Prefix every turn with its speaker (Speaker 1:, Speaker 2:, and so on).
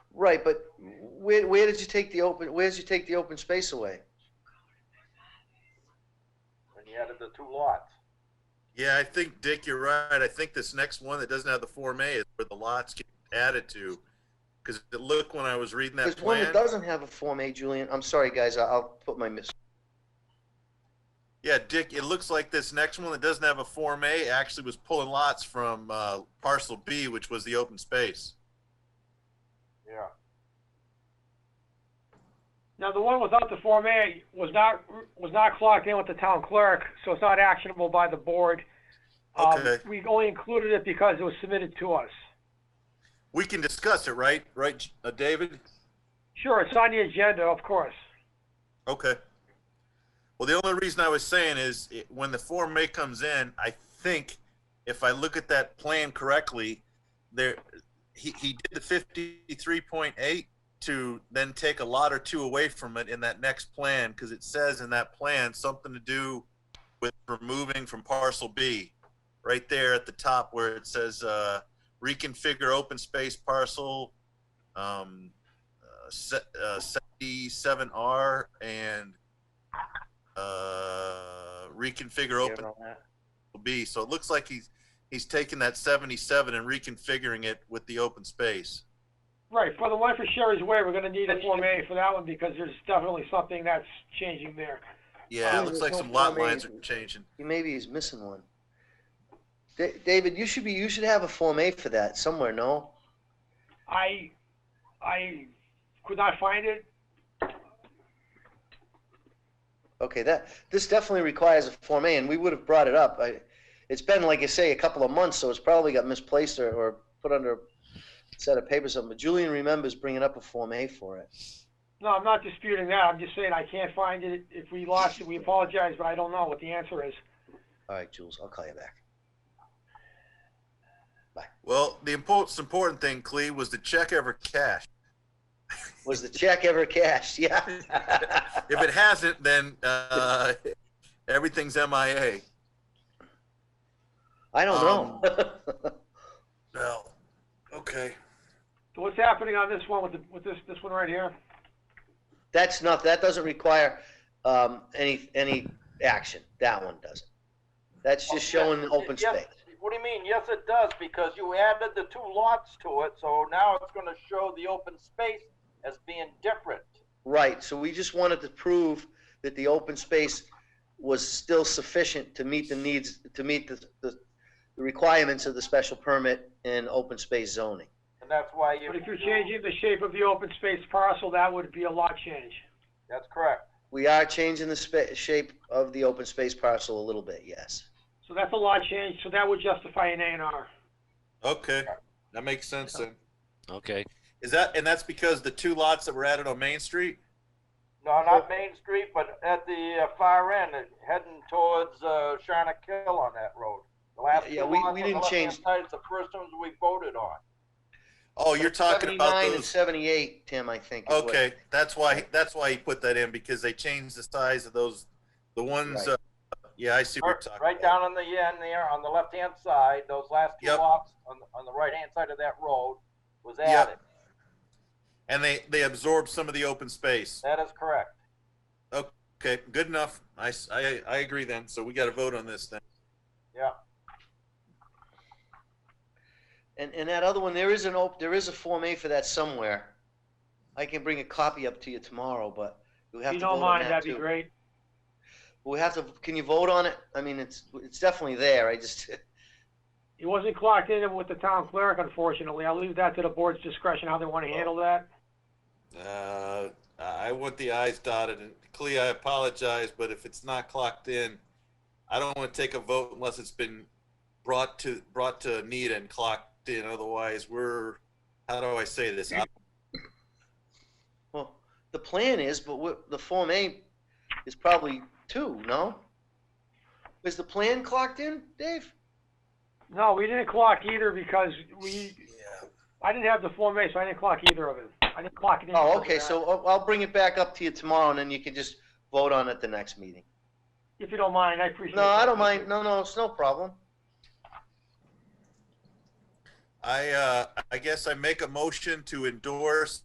Speaker 1: Right, but where, where did you take the open, where did you take the open space away?
Speaker 2: and you added the two lots.
Speaker 3: Yeah, I think, Dick, you're right. I think this next one that doesn't have the Form A is where the lots get added to. Because it looked, when I was reading that
Speaker 1: There's one that
Speaker 3: plan,
Speaker 1: doesn't have a Form A, Julian. I'm sorry, guys, I- I'll put my mis,
Speaker 3: yeah, Dick, it looks like this next one that doesn't have a Form A actually was pulling lots from uh, parcel B, which was the open space.
Speaker 2: Yeah.
Speaker 4: Now, the one without the Form A was not, was not clocked in with the town clerk, so it's not actionable by the board. Um,
Speaker 3: Okay.
Speaker 4: We only included it because it was submitted to us.
Speaker 3: We can discuss it, right? Right, uh, David?
Speaker 4: Sure, it's on the agenda, of course.
Speaker 3: Okay. Well, the only reason I was saying is it, when the Form A comes in, I think if I look at that plan correctly, there, he, he did the fifty-three point eight to then take a lot or two away from it in that next plan, because it says in that plan, something to do with removing from parcel B, right there at the top where it says, uh, reconfigure open space parcel, um, uh, se- uh, 77R and uh, reconfigure
Speaker 1: Yeah,
Speaker 3: open
Speaker 1: on that.
Speaker 3: B. So it looks like he's he's taking that 77 and reconfiguring it with the open space.
Speaker 4: Right, for the one for Sherry's Way, we're gonna need a Form A for that one because there's definitely something that's changing there.
Speaker 3: Yeah,
Speaker 1: Oh,
Speaker 3: it looks
Speaker 1: there's
Speaker 3: like
Speaker 1: no
Speaker 3: some lot
Speaker 1: Form A.
Speaker 3: lines are changing.
Speaker 1: He maybe he's missing one. Da- David, you should be, you should have a Form A for that somewhere, no?
Speaker 4: I, I could not find it.
Speaker 1: Okay, that, this definitely requires a Form A, and we would have brought it up. I, it's been, like you say, a couple of months, so it's probably got misplaced or, or put under a set of papers or something. But Julian remembers bringing up a Form A for it.
Speaker 4: No, I'm not disputing that. I'm just saying I can't find it. If we lost it, we apologize, but I don't know what the answer is.
Speaker 1: All right, Jules, I'll call you back.
Speaker 3: Well, the important important thing, Clee, was the check ever cashed.
Speaker 1: Was the check ever cashed? Yeah.
Speaker 3: If it hasn't, then uh, everything's MIA.
Speaker 1: I don't
Speaker 3: Um,
Speaker 1: know.
Speaker 3: No. Okay.
Speaker 4: So what's happening on this one with the, with this, this one right here?
Speaker 1: That's not, that doesn't require um, any, any action. That one doesn't. That's just
Speaker 3: Oh,
Speaker 1: showing the open
Speaker 2: Yes,
Speaker 1: space.
Speaker 2: What do you mean? Yes, it does, because you added the two lots to it, so now it's gonna show the open space as being different.
Speaker 1: Right, so we just wanted to prove that the open space was still sufficient to meet the needs, to meet the, the the requirements of the special permit and open space zoning.
Speaker 2: And that's why you.
Speaker 4: But if you're changing the shape of the open space parcel, that would be a lot change.
Speaker 2: That's correct.
Speaker 1: We are changing the spa- shape of the open space parcel a little bit, yes.
Speaker 4: So that's a lot change, so that would justify an A and R.
Speaker 3: Okay. That makes sense then.
Speaker 5: Okay.
Speaker 3: Is that and that's because the two lots that were added on Main Street?
Speaker 2: No, not Main Street, but at the uh, far end, uh, heading towards, uh, Sharna Kill on that road. The last
Speaker 1: Yeah,
Speaker 2: two
Speaker 1: we-
Speaker 2: lots
Speaker 1: we
Speaker 2: on the
Speaker 1: didn't
Speaker 2: left-hand
Speaker 1: change-
Speaker 2: side is the first ones we voted on.
Speaker 3: Oh, you're talking about
Speaker 1: 79 and
Speaker 3: those.
Speaker 1: seventy-eight, Tim, I think. is what-
Speaker 3: Okay, that's why, that's why he put that in, because they changed the size of those, the ones, uh,
Speaker 1: Right.
Speaker 3: yeah, I see what you're
Speaker 2: Right-
Speaker 3: talking about.
Speaker 2: Right down on the end there, on the left-hand side, those last two
Speaker 3: Yep.
Speaker 2: lots on, the- on the right-hand side of that road was
Speaker 3: Yep.
Speaker 2: added.
Speaker 3: And they, they absorbed some of the open space.
Speaker 2: That is correct.
Speaker 3: Okay, good enough. I, s- I- I agree then, so we gotta vote on this then.
Speaker 2: Yeah.
Speaker 1: And, and that other one, there is an op, there is a Form A for that somewhere. I can bring a copy up to you tomorrow, but we
Speaker 4: If
Speaker 1: have
Speaker 4: you
Speaker 1: to vote
Speaker 4: don't
Speaker 1: on
Speaker 4: mind,
Speaker 1: that
Speaker 4: that'd be
Speaker 1: too.
Speaker 4: great.
Speaker 1: We have to, can you vote on it? I mean, it's, it's definitely there, I just,
Speaker 4: It wasn't clocked in with the town clerk, unfortunately. I'll leave that to the board's discretion, how they wanna handle that.
Speaker 3: Uh, I want the i's dotted, and Clea, I apologize, but if it's not clocked in, I don't wanna take a vote unless it's been brought to, brought to Anita and clocked in, otherwise we're, how do I say this?
Speaker 1: well, the plan is, but what, the Form A is probably two, no? Is the plan clocked in, Dave?
Speaker 4: No, we didn't clock either because we, I didn't have the Form A, so I didn't clock either of it. I didn't clock it in.
Speaker 1: Oh, okay, so I'll- I'll bring it back up to you tomorrow, and then you can just vote on it the next meeting.
Speaker 4: If you don't mind, I appreciate it.
Speaker 1: No, I don't mind, no, no, it's no problem.
Speaker 3: I, uh, I guess I make a motion to endorse